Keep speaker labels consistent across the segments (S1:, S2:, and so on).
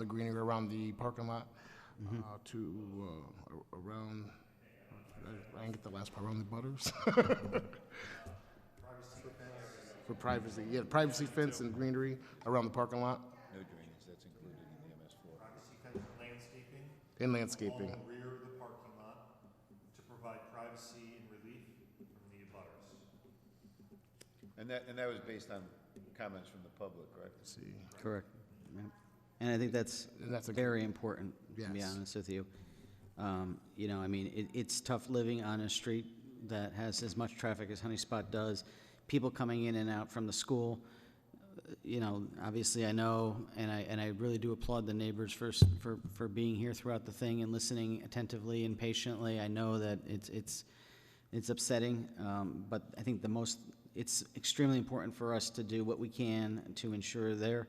S1: the greenery around the parking lot
S2: Mm-hmm.
S1: uh, to, uh, a- around, I- I didn't get the last part, around the butters? For privacy, yeah, privacy fence and greenery around the parking lot
S3: No drainage, that's included in the MS four.
S4: privacy fence landscaping
S1: and
S4: along
S1: landscaping.
S4: the rear of the parking lot to provide privacy and relief from the abutters.
S3: And that, and that was based on comments from the public, right?
S1: Let's See,
S2: Correct. Yep. And I think that's
S1: And that's a-
S2: very important, to be
S1: Yes.
S2: honest with you. Um, You know, I mean, it, it's tough living on a street that has as much traffic as Honey Spot does, people coming in and out from the school. Uh, You know, obviously, I know, and I, and I really do applaud the neighbors for, s- for, for being here throughout the thing and listening attentively and patiently. I know that it's, it's, it's upsetting, um, but I think the most, it's extremely important for us to do what we can to ensure their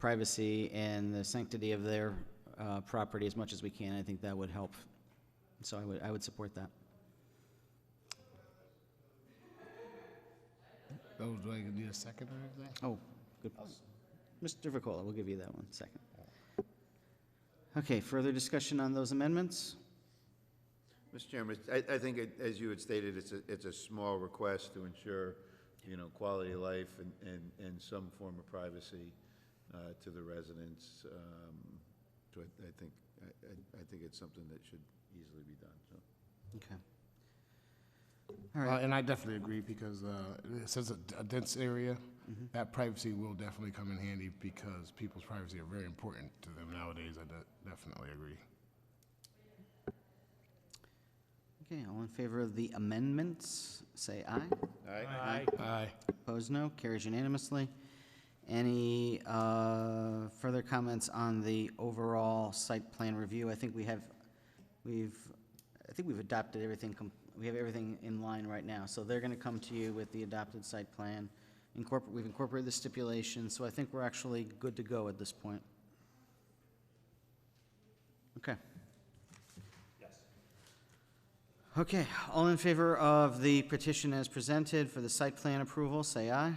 S2: privacy and the sanctity of their uh, property as much as we can. I think that would help. So I would, I would support that.
S1: that was, do I need a second or anything?
S2: Oh, good. Mr. Vakola, we'll give you that one second. Okay, further discussion on those amendments?
S3: Mr. Chairman, it's- I, I think, it- as you had stated, it's a, it's a small request to ensure, you know, quality of life and, and, and some form of privacy uh, to the residents. um, So I, I think, I, I- I think it's something that should easily be done, so.
S2: Okay. All
S1: Uh,
S2: right,
S1: and I definitely agree because uh, it says a, a dense area.
S2: Mm-hmm.
S1: That privacy will definitely come in handy because people's privacy are very important to them nowadays. I de- definitely agree.
S2: okay, all in favor of the amendments, say aye.
S3: Aye.
S1: Aye.
S2: Opposed, no. Carries unanimously. Any uh, further comments on the overall site plan review? I think we have, we've, I think we've adopted everything, com- we have everything in line right now. So they're going to come to you with the adopted site plan. Incorporate, we've incorporated the stipulation, so I think we're actually good to go at this point. Okay.
S4: Yes.
S2: Okay, all in favor of the petition as presented for the site plan approval, say aye.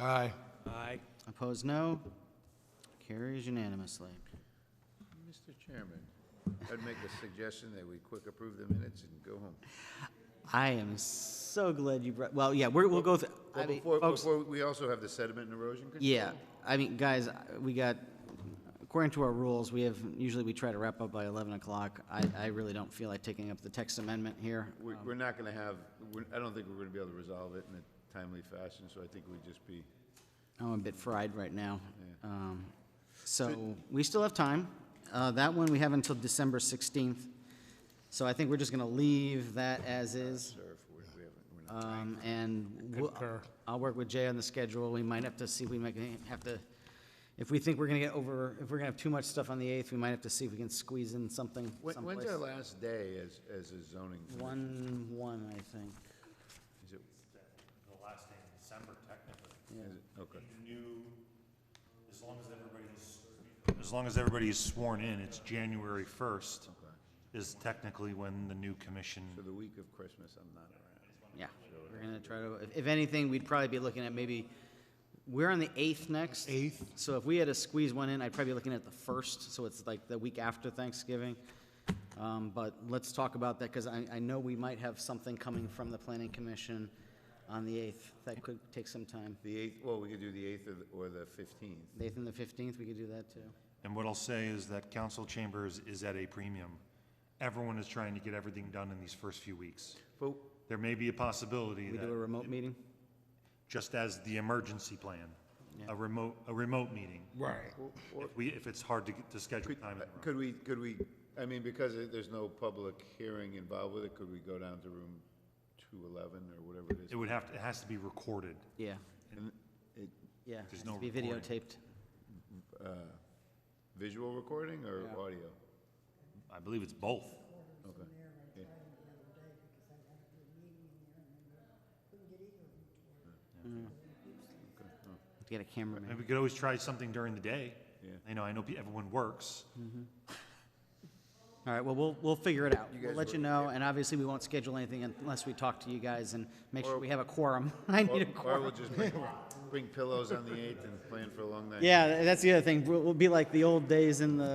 S3: Aye.
S1: Aye.
S2: Opposed, no. Carries unanimously.
S3: Mr. Chairman, I'd make a suggestion that we quick approve the minutes and go home.
S2: I am so glad you brought, well, yeah, we're, we'll go, th- I
S3: Well,
S2: mean,
S3: before,
S2: folks,
S3: before, we also have the sediment and erosion control.
S2: yeah, I mean, guys, we got, according to our rules, we have, usually we try to wrap up by 11 o'clock. I, I really don't feel like taking up the text amendment here.
S3: We're, we're not gonna have, we're, I don't think we're gonna be able to resolve it in a timely fashion, so I think we'd just be,
S2: I'm a bit fried right now. Um, So, we still have time. Uh, That one, we have until December 16th. So I think we're just going to leave that as is.
S3: or if we we haven't, we're not.
S2: Um, and we'll-
S1: Concur.
S2: I'll work with Jay on the schedule. We might have to see, we might have to, if we think we're gonna get over, if we're gonna have too much stuff on the eighth, we might have to see if we can squeeze in something
S3: When, when's
S2: someplace.
S3: our last day as, as a zoning? commi-
S2: One, one, I think.
S3: Is it,
S4: The last day in December technically.
S3: is it, okay.
S4: New, as long as everybody's, as long as everybody's sworn in, it's January first is technically when the new commission,
S3: So the week of Christmas, I'm not around.
S2: Yeah, we're gonna try to, if- if anything, we'd probably be looking at maybe, we're on the eighth next.
S1: Eighth.
S2: So if we had to squeeze one in, I'd probably be looking at the first, so it's like the week after Thanksgiving. Um, but let's talk about that, because I, I know we might have something coming from the planning commission on the eighth. That could take some time.
S3: The eighth, well, we could do the eighth or, the- or the fifteenth.
S2: The eighth and the fifteenth, we could do that too.
S4: and what I'll say is that council chambers is at a premium. Everyone is trying to get everything done in these first few weeks.
S3: But
S4: There may be a possibility
S2: We
S4: that.
S2: do a remote meeting?
S4: just as the emergency plan, a remote, a remote meeting.
S1: Right.
S4: If we, if it's hard to, get- to schedule
S3: could,
S4: time in the room.
S3: could we, could we, I mean, because it- there's no public hearing involved with it, could we go down to room two eleven or whatever it
S4: It
S3: is?
S4: would have, to- it has to be recorded.
S2: Yeah,
S3: And it,
S2: yeah.
S4: There's
S2: has
S4: no
S2: to Be
S4: recording.
S2: videotaped.
S3: visual recording or
S2: Yeah.
S3: audio?
S4: I believe it's both.
S3: Okay. Yeah.
S2: Get a
S4: And
S2: cameraman.
S4: we could always try something during the day.
S3: Yeah.
S4: You know, I know pe- everyone works.
S2: All right, well, we'll, we'll figure it out. We'll
S3: guys
S2: let you
S3: work,
S2: know, and obviously, we won't schedule anything unless we talk to you guys and make sure we have a quorum. I
S3: Or
S2: need a
S3: or we'll
S2: quorum.
S3: just bring- bring pillows on the 8th and plan for a long night.
S2: Yeah, that's the other thing. We'll, we'll be like the old days in the